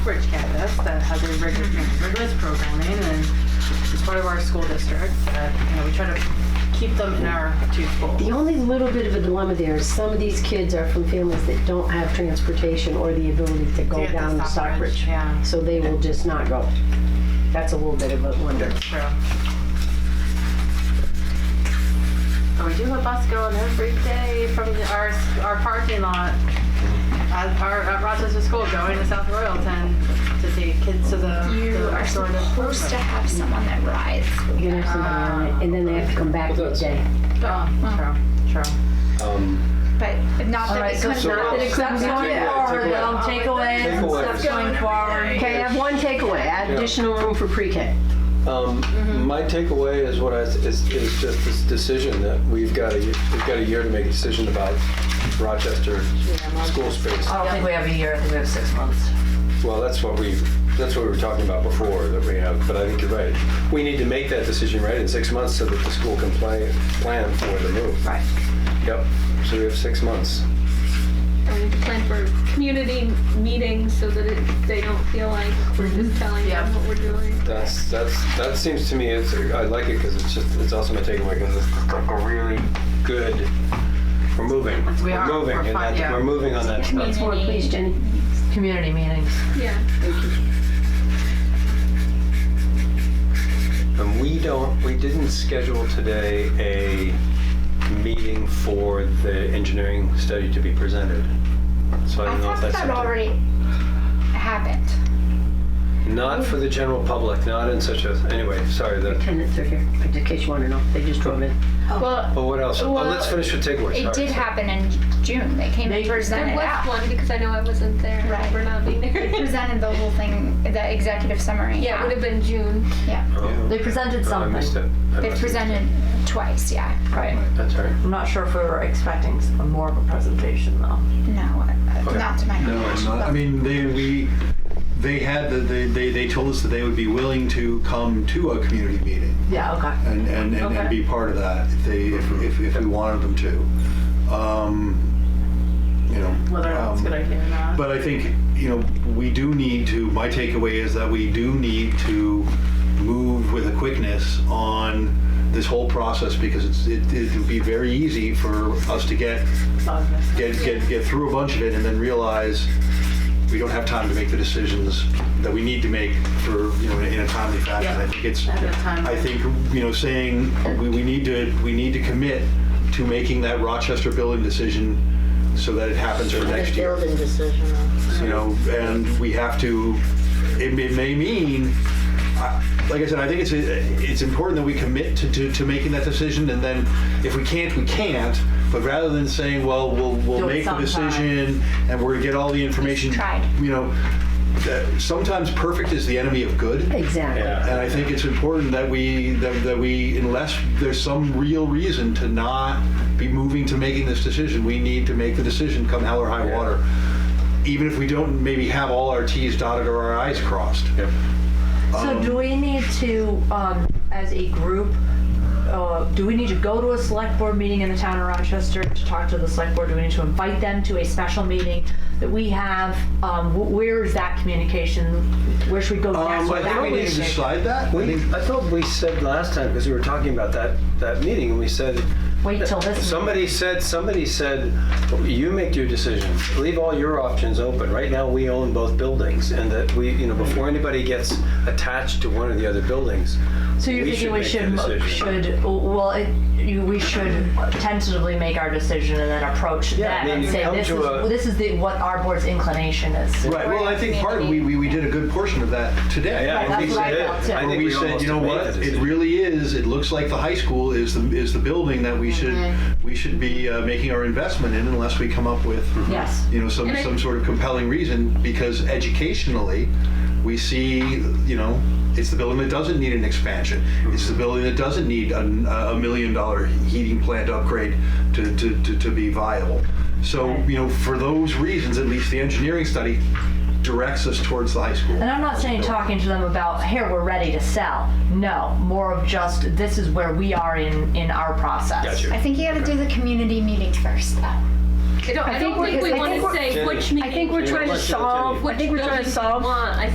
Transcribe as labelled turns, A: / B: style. A: Bridge campus that has a rigorous,
B: Mm-hmm.
A: rigorous programming and it's part of our school district. That, you know, we try to keep them in our two schools.
C: The only little bit of a dilemma there is some of these kids are from families that don't have transportation or the ability to go
A: Yeah, to
C: down to
A: Stockbridge,
C: Stockbridge.
A: yeah.
C: So they will just not go. That's a little bit of a wonder.
A: True. But we do have bus going every day from the- our, our parking lot at, our, at Rochester School going to South Royalton to take kids to the,
D: You
A: to
D: are
A: our sort of
D: supposed to
A: program.
D: have someone that rides.
C: You can have somebody on it, and then they have to come back
E: Well,
C: for the
E: that's-
C: day.
A: Oh, True, true.
E: Um,
D: But not
B: All
D: that
B: right,
D: it
B: so
D: could
B: not
D: not.
B: that it could be going
E: Yeah,
B: forward,
E: takeaway.
B: though,
A: Oh,
B: takeaways and
E: Takeaways.
B: stuff going forward.
C: Okay, I have one takeaway, add
E: Yeah.
C: additional room for pre-K.
E: um,
B: Mm-hmm.
E: My takeaway is what I, is, is just this decision that we've got a, we've got a year to make a decision about Rochester school space.
B: I don't think we have a year, I think we have six months.
E: Well, that's what we, that's what we were talking about before, that we have, but I think you're right. We need to make that decision right in six months so that the school can play, plan for the move.
B: Right.
E: Yep, so we have six months.
F: and we plan for community meetings so that it, they don't feel like we're just telling them what we're doing.
E: That's, that's, that seems to me, it's, I like it because it's just, it's also my takeaway because it's like a really good, we're moving.
A: We are.
E: We're moving,
A: We're
E: and
A: fine,
E: that-
A: yeah.
E: we're moving on that.
C: Once more, please, Jenny.
B: Community meetings.
F: Yeah.
E: And we don't, we didn't schedule today a meeting for the engineering study to be presented. So I
D: I
E: don't know if
D: thought
E: that's
D: that
E: something.
D: already happened.
E: Not for the general public, not in such a, anyway, sorry, the,
C: Tenants are here, in case you want to know, they just drove in.
D: Well,
E: but what else? Oh, let's finish with takeaways.
D: it
E: Sorry.
D: did happen in June. They came and
C: They-
D: presented
F: There was
D: out.
F: one because I know I wasn't there
D: Right.
F: for not being
D: They
F: there.
D: presented the whole thing, the executive summary.
F: Yeah, it would have been June.
D: Yeah.
E: Oh,
B: They presented
E: I
B: something.
E: missed it. I
D: They
E: must have-
D: presented twice, yeah.
B: Right.
E: That's all right.
B: I'm not sure if we were expecting s- more of a presentation, though.
D: No, uh,
E: Okay.
D: not to my
G: No,
D: knowledge.
G: it's not. I mean, they, we, they had, the- they, they they told us that they would be willing to come to a community meeting
B: Yeah, okay.
G: and, and, and
B: Okay.
G: and be part of that if they, if, if- if we wanted them to. Um, You know.
A: Whether or not it's a
G: um,
A: good idea or not.
G: But I think, you know, we do need to, my takeaway is that we do need to move with a quickness on this whole process because it's, it- it'd be very easy for us to get get, get, get through a bunch of it and then realize we don't have time to make the decisions that we need to make for, you know, in a timely fashion.
A: Yeah.
G: I think it's,
A: Ahead of time.
G: I think, you know, saying we, we need to, we need to commit to making that Rochester building decision so that it happens for next year. Building decision. You know, and we have to, it may, it may mean, I- like I said, I think it's, it's important that we commit to, to, to making that decision and then if we can't, we can't. But rather than saying, well, we'll,
B: Do
G: we'll
B: it
G: make the
B: sometime.
G: decision and we're gonna get all the information.
D: tried.
G: You know, that sometimes perfect is the enemy of good.
C: Exactly.
G: And I think it's important that we, that, that we, unless there's some real reason to not be moving to making this decision, we need to make the decision come hell or high
E: Yeah.
G: water. Even if we don't maybe have all our Ts dotted or our Is crossed.
E: Yep.
B: So do we need to, um, as a group, uh, do we need to go to a select board meeting in the town of Rochester to talk to the select board? Do we need to invite them to a special meeting that we have? Um, wh- where is that communication? Where should we go
G: Um,
B: next with
G: I
B: that
G: think we need to
B: communication?
G: decide that. I
E: We,
G: think-
E: I thought we said last time, because we were talking about that, that meeting, and we said,
B: Wait till this.
E: somebody said, somebody said, you make your decision, leave all your options open. Right now, we own both buildings, and that we, you know, before anybody gets attached to one of the other buildings.
B: So you're
E: we
B: thinking we
E: make
B: should,
E: the
B: mo-
E: decision.
B: should, well, it, you, we should tentatively make our decision and then approach
E: Yeah,
B: that
E: I mean,
B: and
E: you
B: say,
E: come
B: this is,
E: to a-
B: this is the, what our board's inclination is.
G: Right, well, I think part, we, we, we did a good portion of that today.
E: Yeah, I
B: Right,
E: think
B: that's
E: we
B: what I
E: did.
B: felt, too.
E: I
G: Where
E: think
G: we said,
E: almost
G: you know
E: made
G: what,
E: the
G: it
E: decision.
G: really is, it looks like the high school is the, is the building that we should, we should be uh, making our investment in unless we come up with,
E: Hmm.
B: Yes.
G: you know, some,
F: And I-
G: some sort of compelling reason, because educationally, we see, you know, it's the building that doesn't need an expansion. It's the building that doesn't need a, a million dollar heating plant upgrade to, to, to, to be viable. So, you know, for those reasons, at least the engineering study directs us towards the high school.
B: And I'm not saying talking to them about, here, we're ready to sell. No, more of just, this is where we are in, in our process.
E: Got you.
D: I think you gotta do the community meeting first, though.
E: I don't, I
F: I
E: don't
F: think we're-
E: think we
F: I
E: want to
F: think we're-
E: say
D: Jenny,
E: which
F: I
E: meeting,
F: think we're
D: Jenny,
F: trying to
D: let's-
F: solve, I
E: which
F: think we're trying
E: building
F: to
E: we
F: solve
E: want. I